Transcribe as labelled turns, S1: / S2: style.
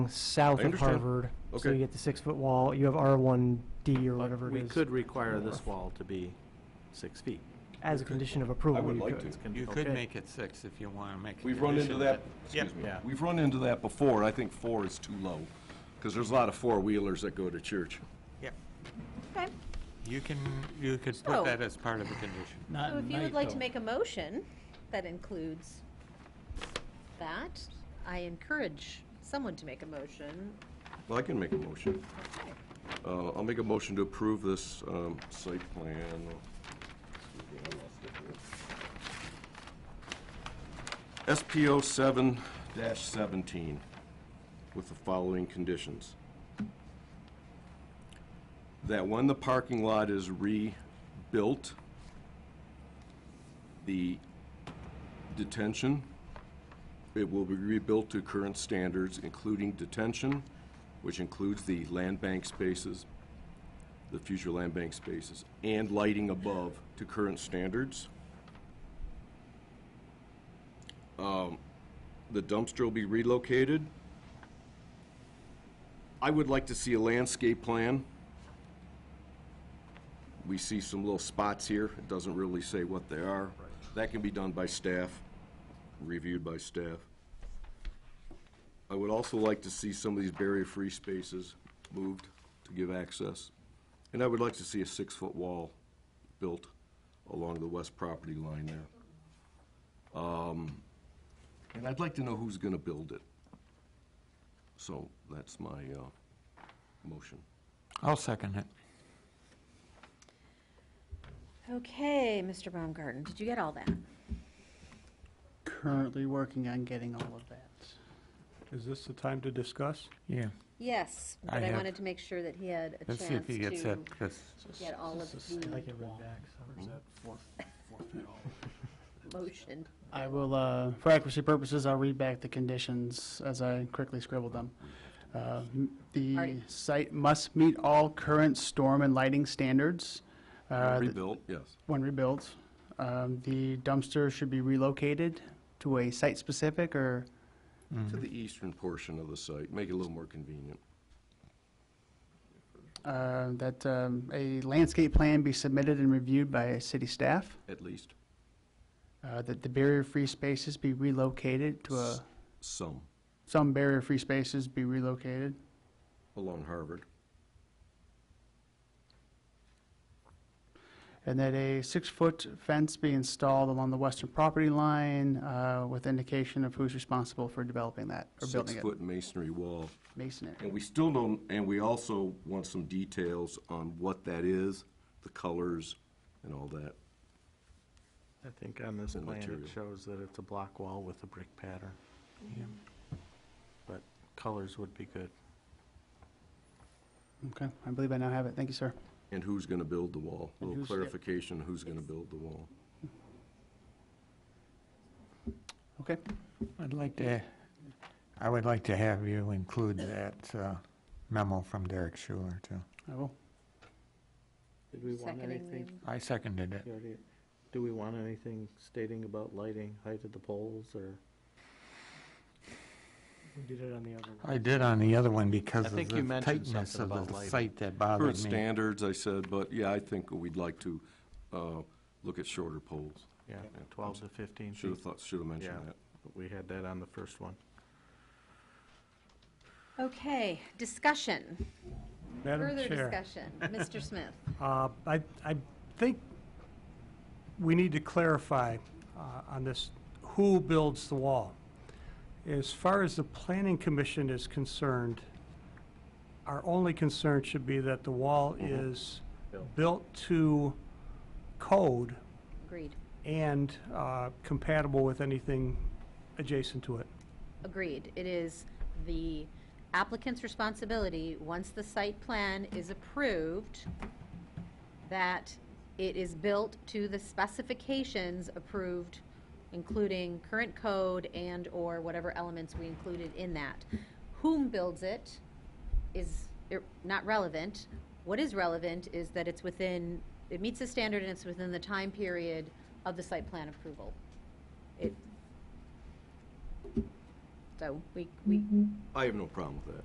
S1: south
S2: I
S1: of
S2: understand.
S1: Harvard. So
S2: Okay.
S1: you get the six-foot wall, you have R1D or whatever it
S3: We
S1: is.
S3: could require this wall to be six feet.
S1: As a condition of approval,
S2: would
S1: you
S2: like
S1: could.
S2: to.
S3: Can-
S4: You could
S3: okay.
S4: make it six if you want to make it.
S2: We've run into that, excuse me,
S3: Yeah.
S2: we've run into that before, I think four is too low, because there's a lot of four-wheelers that go to church.
S4: Yep.
S5: Okay,
S4: You can, you could
S5: So-
S4: put that as part of the condition.
S6: Not
S5: so
S6: at
S5: if you would
S6: night,
S5: like to
S6: though.
S5: make a motion that includes that, I encourage someone to make a motion.
S2: Well, I can make a motion.
S5: Okay.
S2: Uh, I'll make a motion to approve this um, site plan. Excuse me, I lost it here. SPO seven seventeen, with the following conditions. That when the parking lot is rebuilt, the detention it will be rebuilt to current standards, including detention, which includes the land bank spaces, the future land bank spaces, and lighting above to current standards. Um, The dumpster will be relocated. I would like to see a landscape plan. We see some little spots here. It doesn't really say what they are. That can be done by staff reviewed by staff. I would also like to see some of these barrier-free spaces moved to give access. And I would like to see a six-foot wall built along the west property line there. Um, And I'd like to know who's gonna build it. So that's my, uh, motion.
S4: I'll second it.
S5: Okay, Mr. Baumgarten, did you get all that?
S6: Currently working on getting all of that.
S7: Is this the time to discuss?
S4: Yeah.
S5: Yes,
S4: I
S5: but I
S4: have-
S5: wanted to make sure that he had a
S4: Let's see if
S5: chance
S4: he gets it,
S5: to
S4: 'cause-
S5: get all of
S1: Like
S5: the
S1: it went back, so.
S5: motion.
S6: I will, uh, for accuracy purposes, I'll read back the conditions as I quickly scribbled them. Uh, m- The
S5: Alrighty.
S6: site must meet all current storm and lighting standards uh, th-
S2: Rebuilt, yes.
S6: when rebuilt. Um, The dumpster should be relocated to a site-specific or
S2: To the eastern portion of the site, make it a little more convenient.
S6: uh, that um, a landscape plan be submitted and reviewed by city staff.
S2: At least.
S6: Uh, That the barrier-free spaces be relocated to a,
S2: Some,
S6: some barrier-free spaces be relocated.
S2: along Harvard.
S6: And that a six-foot fence be installed along the western property line uh, with indication of who's responsible for developing that or building it.
S2: Six-foot masonry wall.
S6: Masonry.
S2: And we still don't, and we also want some details on what that is, the colors and all that.
S3: I think on this
S2: The
S3: plan,
S2: material.
S3: it shows that it's a block wall with a brick pattern. But colors would be good.
S6: Okay, I believe I now have it. Thank you, sir.
S2: And who's gonna build the wall? A
S6: And
S2: little
S6: who's- yep.
S2: clarification, who's gonna build the wall?
S6: Okay,
S4: I'd like to, I would like to have you include that uh, memo from Derek Schuler, too.
S6: I will.
S3: Did we want
S5: Seconding
S3: anything?
S5: the-
S4: I seconded it.
S3: you already- Do we want anything stating about lighting, height of the poles, or?
S1: We did it on the other one.
S4: I did on the other one because
S3: I
S4: of
S3: think you
S4: the
S3: mentioned
S4: tightness
S3: something
S4: of
S3: about
S4: the
S3: lighting.
S4: site that
S2: Current
S4: bothered me.
S2: standards, I said, but yeah, I think we'd like to, uh, look at shorter poles.
S3: Yeah, twelve to fifteen
S2: Should've
S3: feet.
S2: thought, should've mentioned
S3: Yeah.
S2: that.
S3: We had that on the first one.
S5: Okay, discussion,
S7: Madam
S5: further
S7: Chair,
S5: discussion. Mr. Smith?
S7: uh, I, I think we need to clarify uh, on this, who builds the wall? As far as the planning commission is concerned, our only concern should be that the wall is
S3: Built.
S7: built to code
S5: Agreed,
S7: and uh, compatible with anything adjacent to it.
S5: agreed. It is the applicant's responsibility, once the site plan is approved, that it is built to the specifications approved, including current code and/or whatever elements we included in that. Whom builds it is ir- not relevant. What is relevant is that it's within, it meets the standard and it's within the time period of the site plan approval. It, So we, we
S2: I have no problem with that.